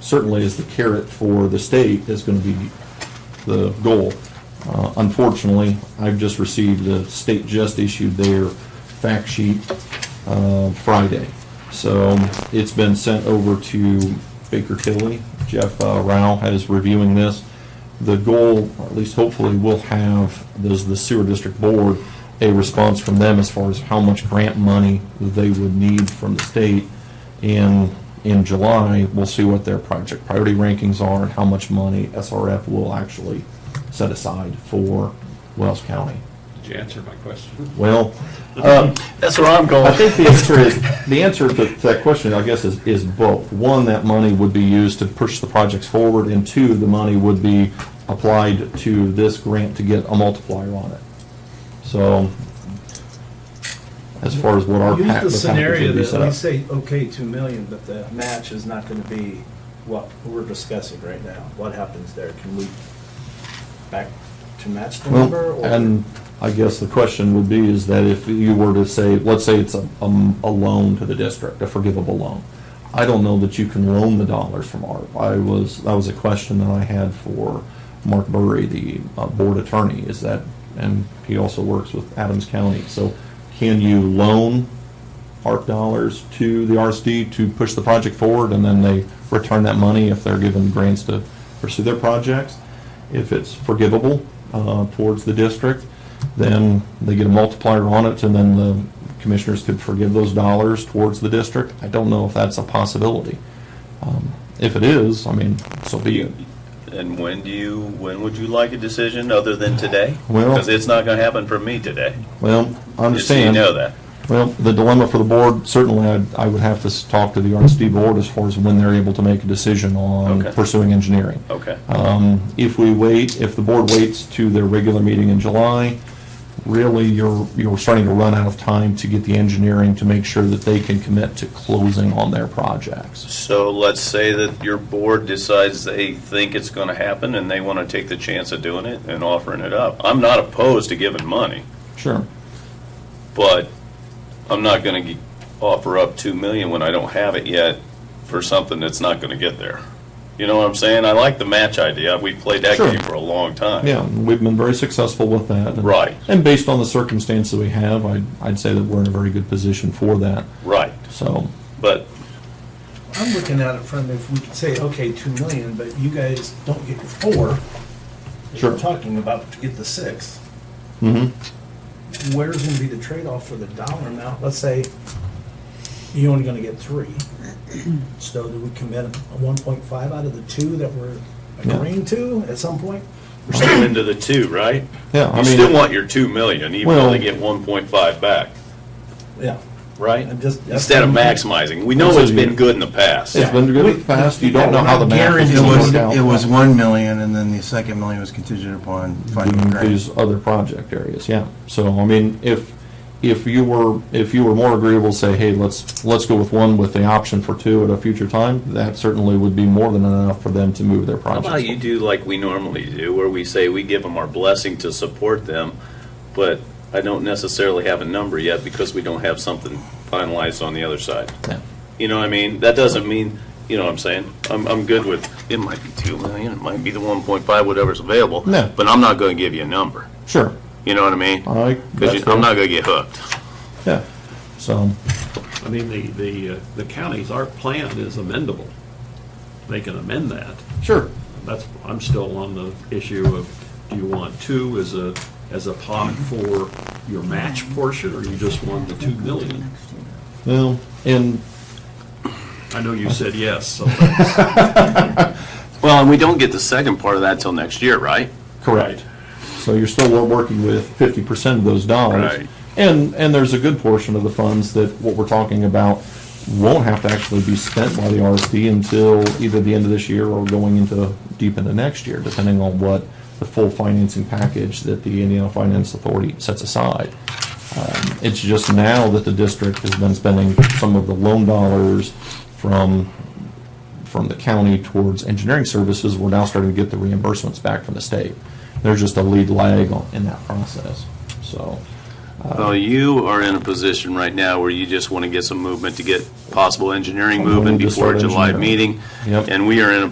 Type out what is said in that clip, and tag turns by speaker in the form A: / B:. A: certainly is the carrot for the state, is going to be the goal. Uh, Unfortunately, I've just received, the state just issued their fact sheet uh, Friday. So um, it's been sent over to Baker Tilly. Jeff uh, Rao is reviewing this. The goal, or at least hopefully, will have, does the sewer district board, a response from them as far as how much grant money they would need from the state. And in July, we'll see what their project priority rankings are and how much money SRF will actually set aside for Wells County.
B: Did you answer my question?
A: Well, um,
C: That's where I'm
A: I
C: going.
A: think the answer is, the answer to that question, I guess, is, is both. One, that money would be used to push the projects forward, and two, the money would be applied to this grant to get a multiplier on it. So, as far as what our pa- the
D: Use the
A: package
D: scenario
A: would be
D: that,
A: set
D: we
A: up.
D: say, okay, 2 million, but the match is not going to be what we're discussing right now. What happens there? Can we back to match the number?
A: Well,
D: or-
A: and I guess the question would be is that if you were to say, let's say it's a, um, a loan to the district, a forgivable loan. I don't know that you can loan the dollars from ARP. I was, that was a question that I had for Mark Burry, the uh, board attorney, is that, and he also works with Adams County. So can you loan ARP dollars to the RSD to push the project forward, and then they return that money if they're given grants to pursue their projects. If it's forgivable uh, towards the district, then they get a multiplier on it, and then the commissioners could forgive those dollars towards the district. I don't know if that's a possibility. Um, If it is, I mean, so be it.
C: And when do you, when would you like a decision other than today?
A: Well-
C: Because it's not going to happen for me today.
A: Well, I
C: Just so you
A: understand.
C: know that.
A: Well, the dilemma for the board, certainly, I'd- I would have to s- talk to the RSD board as far as when they're able to make a decision on
C: Okay. Oh.
A: pursuing engineering.
C: Okay.
A: Um, If we wait, if the board waits to their regular meeting in July, really, you're, you're starting to run out of time to get the engineering to make sure that they can commit to closing on their projects.
C: So let's say that your board decides they think it's going to happen and they want to take the chance of doing it and offering it up. I'm not opposed to giving money,
A: Sure.
C: but I'm not going to offer up 2 million when I don't have it yet for something that's not going to get there. You know what I'm saying? I like the match idea. We played that
A: Sure.
C: game for a long time.
A: Yeah, and we've been very successful with that.
C: Right.
A: And based on the circumstances we have, I'd, I'd say that we're in a very good position for that,
C: Right.
A: so.
C: But
D: I'm looking at it from if we could say, okay, 2 million, but you guys don't get your four.
A: Sure.
D: We're talking about to get the six.
A: mhm.
D: Where's going to be the trade-off for the dollar amount? Let's say you're only going to get three. So do we commit a 1.5 out of the two that we're
A: Yeah.
D: agreeing to at some point?
C: we're still into the two, right?
A: Yeah, I
C: You still
A: mean,
C: want your two million, even
A: Well-
C: though they get one point five back,
D: Yeah.
C: right?
D: I'm just-
C: Instead of maximizing, we know it's been good in the past.
A: it's been good in the past, you don't know how the math is
E: It
A: going to
E: was,
A: work out.
E: it was 1 million, and then the second million was contingent upon finding a
A: in
E: grant.
A: these other project areas, yeah. So, I mean, if, if you were, if you were more agreeable, say, hey, let's, let's go with one with the option for two at a future time, that certainly would be more than enough for them to move their
C: How
A: projects.
C: about you do like we normally do, where we say we give them our blessing to support them, but I don't necessarily have a number yet because we don't have something finalized on the other side.
A: Yeah.
C: You know what I mean? That doesn't mean, you know what I'm saying? I'm, I'm good with, it might be two million, it might be the one point five, whatever's available.
A: No.
C: But I'm not gonna give you a number.
A: Sure.
C: You know what I mean?
A: I-
C: Because
A: that's
C: I'm not gonna get hooked.
A: fair. Yeah, so,
B: I mean, the, the, uh, the counties, our plan is amendable. They can amend that.
A: sure,
B: That's, I'm still on the issue of, do you want two as a, as a pot for your match portion, or you just want the two million?
A: well, and,
B: I know you said yes, so
C: Well, and we don't get the second part of that till next year, right?
A: correct. So you're still wor- working with fifty percent of those dollars.
C: Right.
A: And, and there's a good portion of the funds that, what we're talking about, won't have to actually be spent by the RSD until either the end of this year or going into, deep into next year, depending on what the full financing package that the Indiana Finance Authority sets aside. Um, It's just now that the district has been spending some of the loan dollars from, from the county towards engineering services, we're now starting to get the reimbursements back from the state. There's just a lead lag on- in that process, so.
C: Well, you are in a position right now where you just want to get some movement to get possible engineering
A: Well, we
C: moving
A: need to
C: before
A: start
C: July
A: engineering.
C: meeting.
A: Yep.
C: And we are in a